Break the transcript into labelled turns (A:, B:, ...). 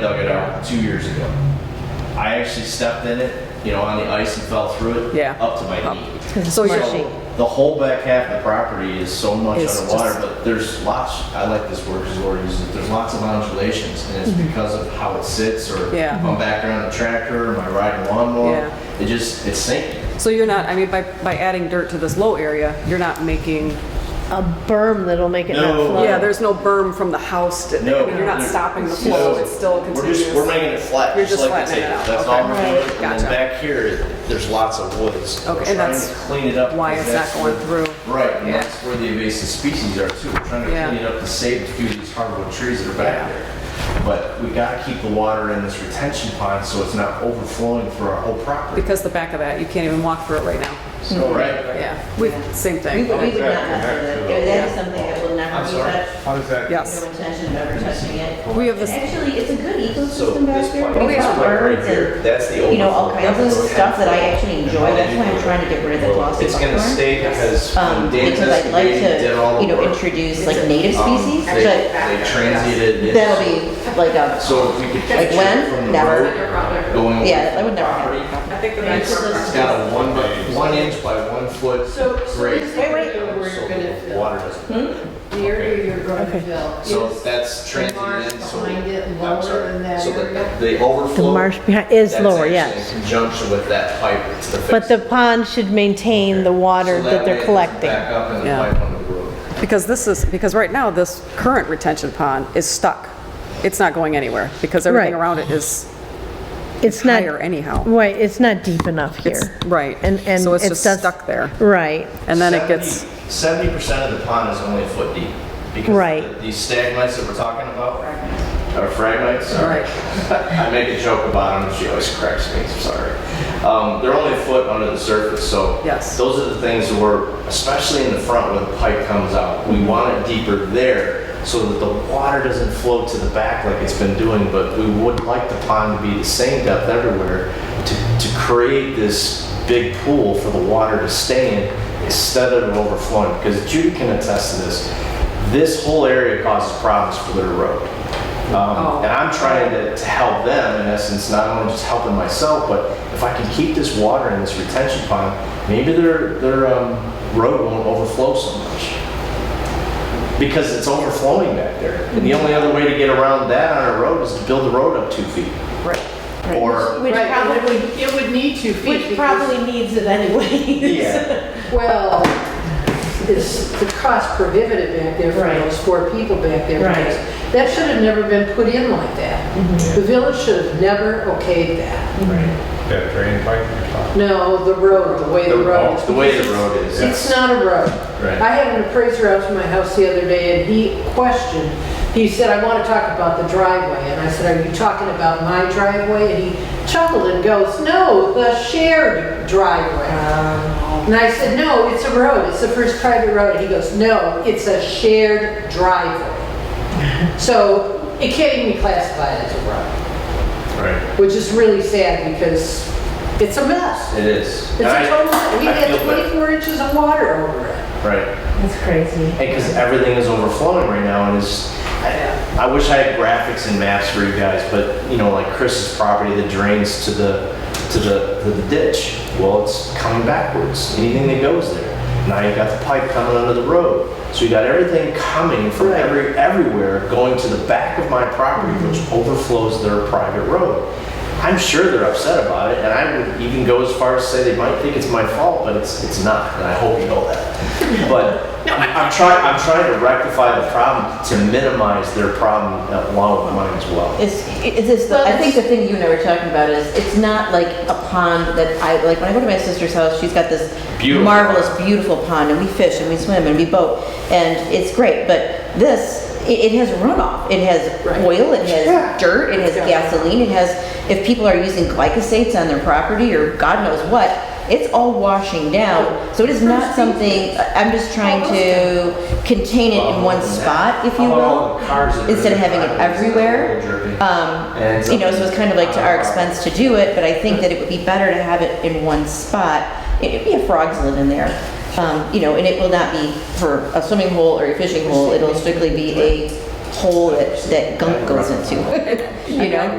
A: dug it out two years ago. I actually stepped in it, you know, on the ice and fell through it.
B: Yeah.
A: Up to my knee.
B: So
A: So,
B: you're,
A: The whole back half of the property is so much
B: It's
A: underwater,
B: just-
A: but there's lots, I like this word, because Lord uses it, there's lots of modulations, and it's because of how it sits, or
B: Mm-hmm. Yeah.
A: if I'm back around the tractor, or my riding lawnmower, it just, it's sinking.
B: so you're not, I mean, by, by adding dirt to this low area, you're not making,
C: a berm that'll make it not
A: No.
C: flow.
B: yeah, there's no berm from the house to, I
A: No.
B: mean, you're not
A: there-
B: stopping the
A: no.
B: flow, it's still
A: We're
B: continuous.
A: just, we're making it flat,
B: You're
A: just
B: just
A: like the
B: flattening it
A: table.
B: out.
A: That's all
B: Okay.
A: we're doing. And
B: Gotcha.
A: then back here, there's lots of woods. We're
B: Okay, and
A: trying
B: that's
A: to Clean it up.
B: why
A: because
B: it's not
A: that's
B: going
A: where-
B: through.
A: Right, and
B: Yeah.
A: that's where the invasive species are too. We're trying
B: Yeah.
A: to clean it up to save a few of these hardwood trees that are
B: Yeah.
A: back there. But we gotta keep the water in this retention pond so it's not overflowing for our whole property.
B: Because the back of that, you can't even walk through it right now.
A: So, right?
B: Yeah, we, same
D: We
B: thing.
D: would,
A: Oh.
D: we would not
E: Back- back
D: have
E: to
D: that,
E: the-
D: that is something that will
A: I'm
D: never be
A: sorry.
D: touched,
E: How does that?
B: Yes.
D: no intention of ever touching it.
B: We have
D: And
B: this,
D: Actually, it's a good
A: So
D: ecosystem
A: this
D: back there.
A: pipe,
D: We
A: this
D: have
A: pipe right
D: birds
A: here,
D: and,
A: that's the overflow.
D: you know, all kinds of stuff that I actually enjoy, that's why I'm trying to get rid of the glossy
A: It's gonna
D: buckhorn.
A: stay because
D: Um,
A: when Dan
D: because I'd like
A: Teske did all the
D: to, you know,
A: work.
D: introduce like native
A: Um,
D: species,
A: They,
D: but
A: they transited it.
D: that'll be like a,
A: So if we could
D: Like
A: catch
D: when?
A: it from the
D: Never.
A: road going. over
D: yeah,
A: the
D: that would never
A: property,
D: happen.
F: I think the
D: It's
F: next
D: just-
F: one.
A: It's got a one by, one inch by one foot
F: So, so
A: grate.
F: this area where
A: So
F: you're gonna
A: the
F: fill,
A: water doesn't.
D: Hmm?
F: the area you're gonna fill
A: So
F: is
A: that's
F: the marsh
A: transient, in, so.
F: behind it
A: I'm
F: lower
A: sorry.
F: than that
A: So the-
F: area?
A: The
C: The
A: overflow.
C: marsh behind is
A: that's
C: lower,
A: actually
C: yes.
A: In conjunction with that pipe to the.
C: But the pond should maintain the water that they're collecting.
A: Back up in the
B: Yeah.
A: pipe on the road.
B: because this is, because right now, this current retention pond is stuck. It's not going anywhere, because everything
C: Right.
B: around it is
C: It's not,
B: higher anyhow.
C: right, it's not deep enough
B: It's,
C: here.
B: right,
C: And, and
B: so it's
C: it
B: just
C: does-
B: stuck there.
C: Right,
B: And then it gets,
A: Seventy percent of the pond is only a foot deep. because
C: Right.
A: the- These stagmites that we're talking about, or fragmites, sorry. I make a joke about them, she always corrects me, I'm sorry. Um, they're only a foot under the surface, so.
B: Yes.
A: Those are the things that we're, especially in the front where the pipe comes out, we want it deeper there so that the water doesn't flow to the back like it's been doing, but we would like the pond to be the same depth everywhere to, to create this big pool for the water to stay in instead of it overflowing, because Judy can attest to this. This whole area causes problems for their road.
F: Oh.
A: Um, And I'm trying to, to help them in essence, not only just helping myself, but if I can keep this water in this retention pond, maybe their, their um, road won't overflow so much. Because it's overflowing back there. And the only other way to get around that on a road is to build the road up two feet. Right. Or,
D: Which
F: Right, and it
D: probably,
F: would- It would need two feet.
D: which
F: because-
D: probably needs it anyway.
A: yeah,
F: Well, it's the cost prohibitive back there for
D: Right.
F: those four people back there.
D: Right.
F: because That should have never been put in like that. The village should have never okayed that.
E: That drain pipe you're talking
F: No, the road, the way the
A: The-
F: road is.
A: Oh, the way the
F: because
A: road
F: it's-
A: is,
F: It's
A: yes.
F: not a road.
A: Right.
F: I had an appraiser out to my house the other day and he questioned, he said, I want to talk about the driveway. And I said, are you talking about my driveway? And he chuckled and goes, no, the shared driveway.
A: Uh-huh.
F: And I said, no, it's a road, it's the first private road. And he goes, no, it's a shared driveway. So it can't even be classified as a road,
A: right,
F: which is really sad because it's a mess.
A: it is.
F: It's a total, we
A: I
F: had
A: feel bad.
F: 24 inches of water over it.
A: Right.
D: That's crazy.
A: because everything is overflowing right now, and it's. I, I wish I had graphics and maps for you guys, but you know, like Chris's property that drains to the to the to the ditch. Well, it's coming backwards. Anything that goes there. Now you got the pipe coming under the road, so you got everything coming from every everywhere going to the back of my property, which overflows their private road. I'm sure they're upset about it, and I would even go as far as say they might think it's my fault, but it's it's not, and I hope you know that. But I'm trying, I'm trying to rectify the problem to minimize their problem along with mine as well.
D: Is, is this, the- I think the thing you and I were talking about is, it's not like a pond that I, like, when I go to my sister's house, she's got this
A: Beautiful.
D: marvelous, beautiful pond, and we fish, and we swim, and we boat, and it's great, but this, it, it has runoff, it has oil, it has dirt, it has gasoline, it has, if people are using glycosates on their property, or God knows what, it's all washing down, so it is not something, I'm just trying to contain it in one spot, if you will, instead of having it everywhere. Um,
A: And
D: you know, so it's kind of like to our expense to do it, but I think that it would be better to have it in one spot. It- It'd be a frog's lid in there, um, you know, and it will not be for a swimming hole or a fishing hole. It'll strictly be a hole that, that gunk goes into, you know?